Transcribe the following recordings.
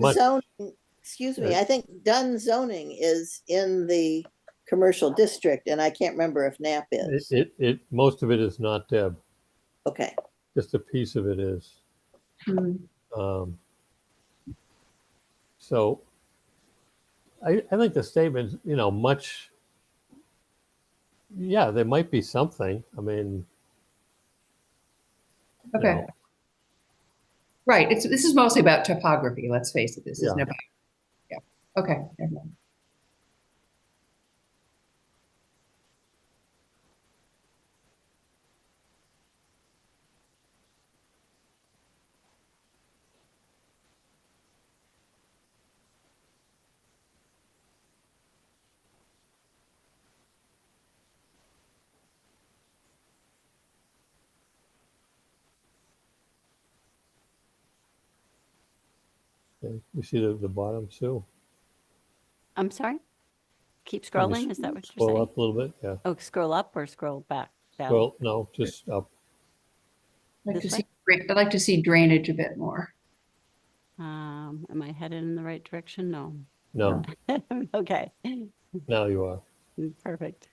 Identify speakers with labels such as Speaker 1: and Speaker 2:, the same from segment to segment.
Speaker 1: But-
Speaker 2: zoning, excuse me, I think Dunn zoning is in the commercial district and I can't remember if Nap
Speaker 1: It,
Speaker 2: is.
Speaker 1: it, it, most of it is not Deb,
Speaker 2: Okay,
Speaker 1: just a piece of it is.
Speaker 3: Mm-hmm.
Speaker 1: Um, So I, I think the statement, you know, much, yeah, there might be something. I mean, you
Speaker 3: Okay,
Speaker 1: know,
Speaker 3: right. It's, this is mostly about topography, let's face it. This isn't
Speaker 1: Yeah.
Speaker 3: about, yeah, okay. never mind.
Speaker 1: okay, You see the, the bottom too.
Speaker 4: I'm sorry?
Speaker 1: Can
Speaker 4: Keep
Speaker 1: you
Speaker 4: scrolling, is that what you're
Speaker 1: Scroll
Speaker 4: saying?
Speaker 1: up a little bit, yeah.
Speaker 4: Oh, scroll up or scroll back down?
Speaker 1: Well, no, just up.
Speaker 3: I'd like to
Speaker 4: This
Speaker 3: see, dra- I'd like to see drainage a bit more.
Speaker 4: Um, am I headed in the right direction? No.
Speaker 1: No,
Speaker 4: Okay,
Speaker 1: now you are.
Speaker 4: perfect.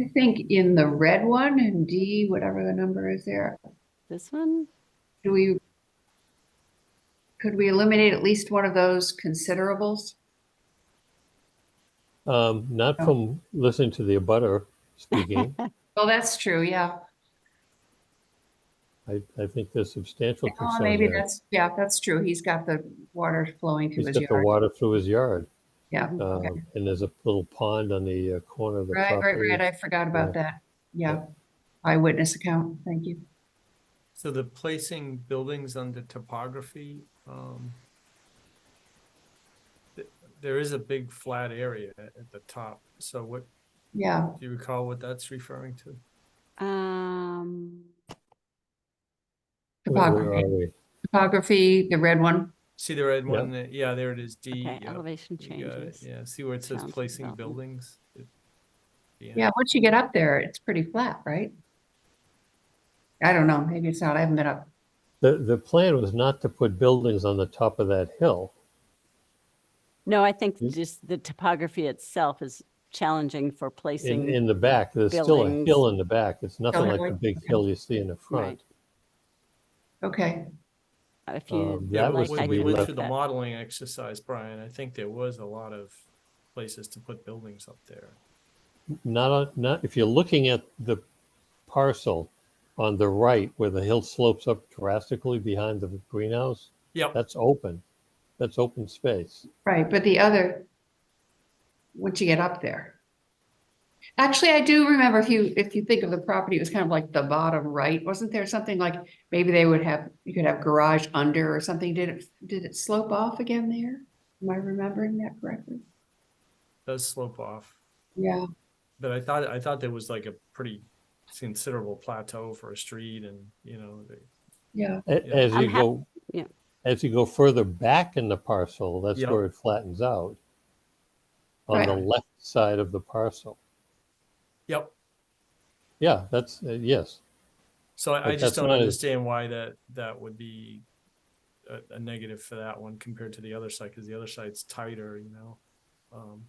Speaker 3: I think in the red one in D, whatever the number is there,
Speaker 4: This one?
Speaker 3: do we, could we eliminate at least one of those considerables?
Speaker 1: Um, not
Speaker 3: Oh.
Speaker 1: from listening to the abutter speaking.
Speaker 3: Well, that's true, yeah.
Speaker 1: I, I think there's substantial
Speaker 3: Oh,
Speaker 1: concern
Speaker 3: maybe
Speaker 1: there.
Speaker 3: that's, yeah, that's true. He's got the water flowing through
Speaker 1: He's
Speaker 3: his
Speaker 1: got the
Speaker 3: yard.
Speaker 1: water through his yard.
Speaker 3: Yeah, okay.
Speaker 1: Um, and there's a little pond on the uh, corner of the
Speaker 3: Right, right,
Speaker 1: property.
Speaker 3: right. I forgot about that. Yeah. Eyewitness account. Thank you.
Speaker 5: So the placing buildings under topography, um, th- there is a big flat area at at the top. So what,
Speaker 3: Yeah.
Speaker 5: do you recall what that's referring to?
Speaker 4: Um,
Speaker 1: Where- where
Speaker 3: Topography,
Speaker 1: are we?
Speaker 3: topography, the red one.
Speaker 5: See the red
Speaker 1: Yeah.
Speaker 5: one? there? Yeah, there it is, D.
Speaker 4: okay,
Speaker 5: yep,
Speaker 4: elevation
Speaker 5: you got it,
Speaker 4: changes.
Speaker 5: Yeah, see where it says
Speaker 4: Sounds
Speaker 5: placing
Speaker 4: about-
Speaker 5: buildings? It- yeah.
Speaker 3: Yeah, once you get up there, it's pretty flat, right? I don't know, maybe it's not, I haven't been up.
Speaker 1: The, the plan was not to put buildings on the top of that hill.
Speaker 4: No, I think
Speaker 1: Hmm?
Speaker 4: just the topography itself is challenging for
Speaker 1: In,
Speaker 4: placing.
Speaker 1: in the back, there's still a
Speaker 4: buildings.
Speaker 1: hill in the back. It's nothing like the
Speaker 3: Totally.
Speaker 1: big hill you see in the
Speaker 4: Right.
Speaker 1: front.
Speaker 3: Okay,
Speaker 4: If
Speaker 1: Um,
Speaker 4: you
Speaker 5: Yeah,
Speaker 1: that
Speaker 4: like,
Speaker 1: was
Speaker 4: I
Speaker 5: when
Speaker 1: we
Speaker 5: we
Speaker 4: can
Speaker 5: went
Speaker 1: left-
Speaker 4: look
Speaker 5: through the
Speaker 4: at-
Speaker 5: modeling exercise, Brian, I think there was a lot of places to put buildings up there.
Speaker 1: Not, on- not, if you're looking at the parcel on the right where the hill slopes up drastically behind the greenhouse,
Speaker 5: Yep,
Speaker 1: that's open. That's open space.
Speaker 3: right, but the other, once you get up there. Actually, I do remember if you, if you think of the property, it was kind of like the bottom right, wasn't there something like, maybe they would have, you could have garage under or something, did it, did it slope off again there? Am I remembering that correctly?
Speaker 5: does slope off.
Speaker 3: Yeah,
Speaker 5: But I thought, I thought there was like a pretty considerable plateau for a street and, you know, the-
Speaker 3: yeah,
Speaker 1: A-
Speaker 5: Yeah.
Speaker 1: As
Speaker 4: I'm
Speaker 1: you
Speaker 4: hap-
Speaker 1: go,
Speaker 4: yeah.
Speaker 1: as you go further back in the parcel, that's
Speaker 5: Yeah.
Speaker 1: where it flattens out. On
Speaker 3: Right.
Speaker 1: the left side of the parcel.
Speaker 5: yep.
Speaker 1: Yeah, that's, uh, yes.
Speaker 5: So
Speaker 1: But
Speaker 5: I, I
Speaker 1: that's
Speaker 5: just don't
Speaker 1: not as-
Speaker 5: understand why that, that would be a, a negative for that one compared to the other side, because the other side's tighter, you know? Um,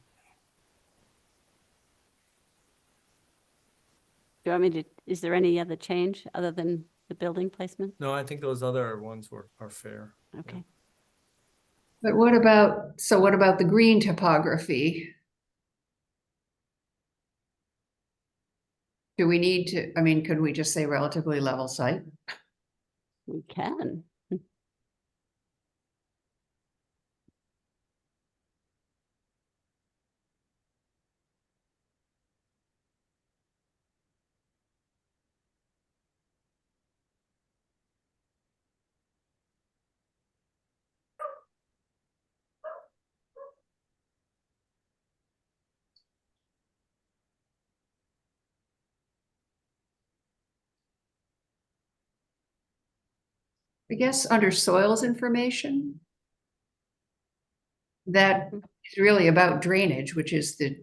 Speaker 4: Do you want me to, is there any other change other than the building placement?
Speaker 5: No, I think those other ones were, are fair.
Speaker 4: Okay.
Speaker 3: but what about, so what about the green topography? Do we need to, I mean, could we just say relatively level site?
Speaker 4: We can.
Speaker 3: I guess under soils information. That is really about drainage, which is the